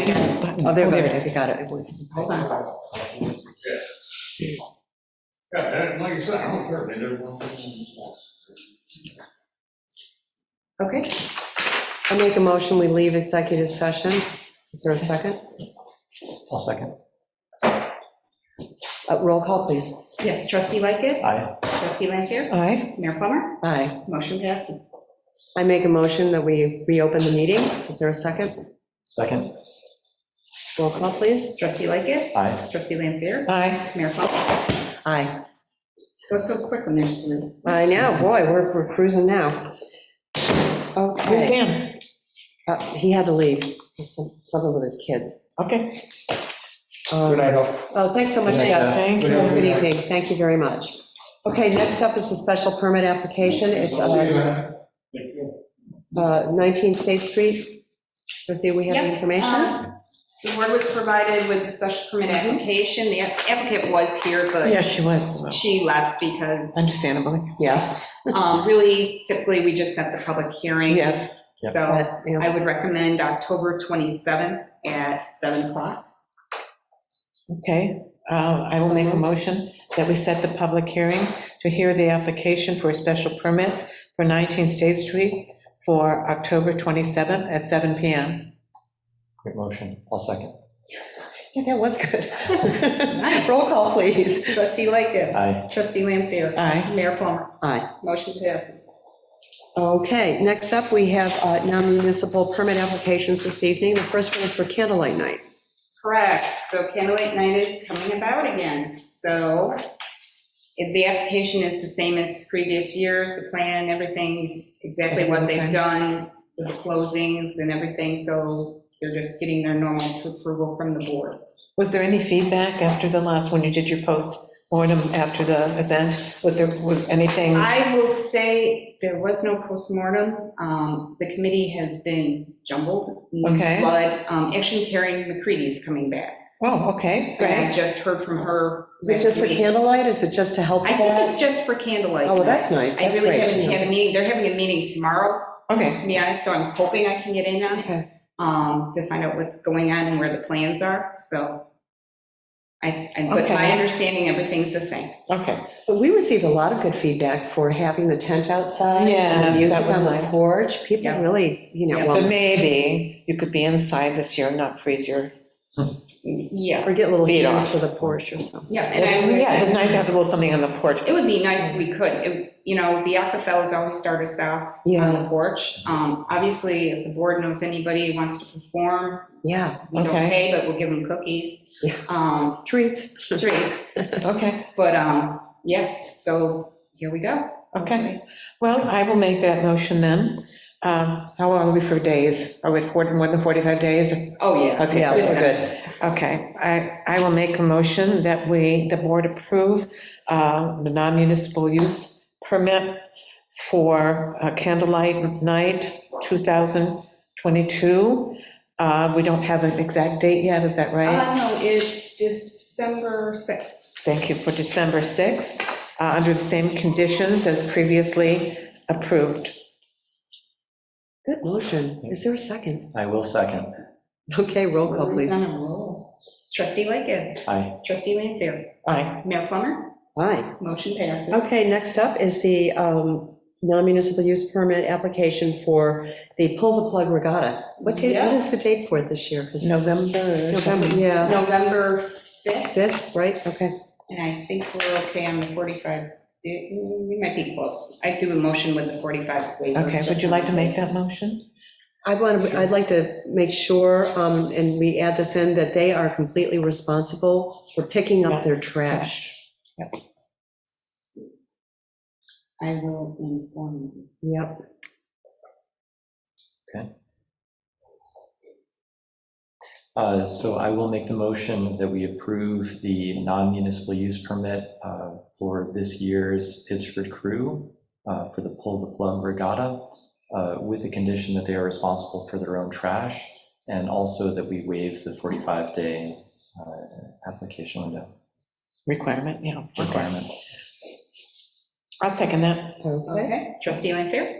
Oh, there it is, got it. Hold on. Yeah, that- like you said, I don't care, they did one. Okay, I make a motion, we leave executive session. Is there a second? I'll second. Uh, Roll call, please. yes, trustee Lightgev, Aye. trustee Lanfair, Aye. Mayor Plummer, Aye. motion passes. I make a motion that we reopen the meeting. Is there a second? Second. Roll call, please. Trustee Lightgev, Aye. trustee Lanfair, Aye. Mayor Plummer. Aye. Go so quick when there's three. I know, boy, we're we're cruising now. Where's Dan? Uh, He had to leave, There's some- something with his kids. Okay. Um, Good night, all. Oh, thanks so much, Good night, Jeff. Jeff. Thank you. Good evening, thank you very much. Okay, next up is a special permit application, it's uh, uh, 19 State Street. Dorothea, we have the Yep, uh, information? Um, The board was provided with the special permit Mm-hmm. application. The applicant was here, Yeah, but she was, she left because understandably. Yeah, um, really typically we just set the public hearing. yes. Yep. So that, yeah. I would recommend October 27th at 7 o'clock. Okay, uh, I will make a motion that we set the public hearing to hear the application for a special permit for 19 State Street for October 27th at 7 PM. Great motion. I'll second. Yeah, that was good. Nice. Roll call, please. Trustee Lightgev. Aye. Trustee Lampier. Aye. Mayor Plummer. Aye. Motion passes. Okay, next up, we have uh, non-municipal permit applications this evening. The first one is for candlelight night. Correct, so candlelight night is coming about again, so if the application is the same as the previous years, the plan, everything, exactly what they've done, with the closings and everything, so they're just getting their normal approval from the board. Was there any feedback after the last, when you did your post-mortem after the event? Was there, was anything? I will say, there was no postmortem, um, the committee has been jumbled. Okay. But, um, actually Karen McCready is coming back, Oh, okay, and I great. just heard from her. Is it just for last week. candlelight? Is it just to help I with think that? it's just for candlelight. Oh, well, night. that's nice, I that's really haven't great. had a meeting, they're having a meeting tomorrow, Okay, to be honest, so I'm hoping I can get in on it, okay. um, to find out what's going on and where the plans are, so. I, I- but my Okay. understanding, everything's the same. Okay. But we received a lot of good feedback for having the tent outside. Yeah, and the Music that was on the nice. porch, people Yeah. really, you know, Yeah. But well, maybe you could be inside this year, and not freeze your, Yeah, or get little Beat views off. for the porch or something. yeah, and yeah, it's I, nice to have a little something on the porch. it would be nice if we could, It- you know, the Aquafellas always start us out on Yeah, the porch. Um, obviously, if the board knows anybody who wants to perform, yeah, we don't Okay. pay, but we'll give them cookies, Yeah. um, treats. treats, Okay, but, um, yeah, so here we go. okay. Well, I will make that motion then. Um, How long are we for days? Are we at 40 more than 45 days? Oh, yeah. Okay, Yeah, we're Just- good. Okay, I, I will make a motion that we, the board approve uh, the non-municipal use permit for uh, candlelight night 2022. Uh, We don't have an exact date yet, is that right? Uh, no, it's December 6th. Thank you, for December 6th, uh, under the same conditions as previously approved. Good motion. Is there a second? I will second. Okay, Oh, roll call, please. on a roll. Trustee Lightgev. Aye. Trustee Lanfair. Aye. Mayor Plummer. Aye. Motion passes. Okay, next up is the um, non-municipal use permit application for the Pull the Plug Regatta. What date, what is the date for it this year? 'Cause- November. November, yeah, November 5th, 5th, right? Okay. and I think we're okay on the 45. Do- We might be close. I do a motion with the 45 waiver. Okay, would you like to make that motion? I want, to. I'd like to make sure, um, and we add this in, that they are completely responsible for picking up their trash. I will inform you. Yep. Uh, So I will make the motion that we approve the non-municipal use permit uh, for this year's Pittsford Crew uh, for the Pull the Plug Regatta uh, with the condition that they are responsible for their own trash and also that we waive the 45-day application window Requirement, yeah. requirement. I'll second that. Okay. Okay. Trustee Lanfair.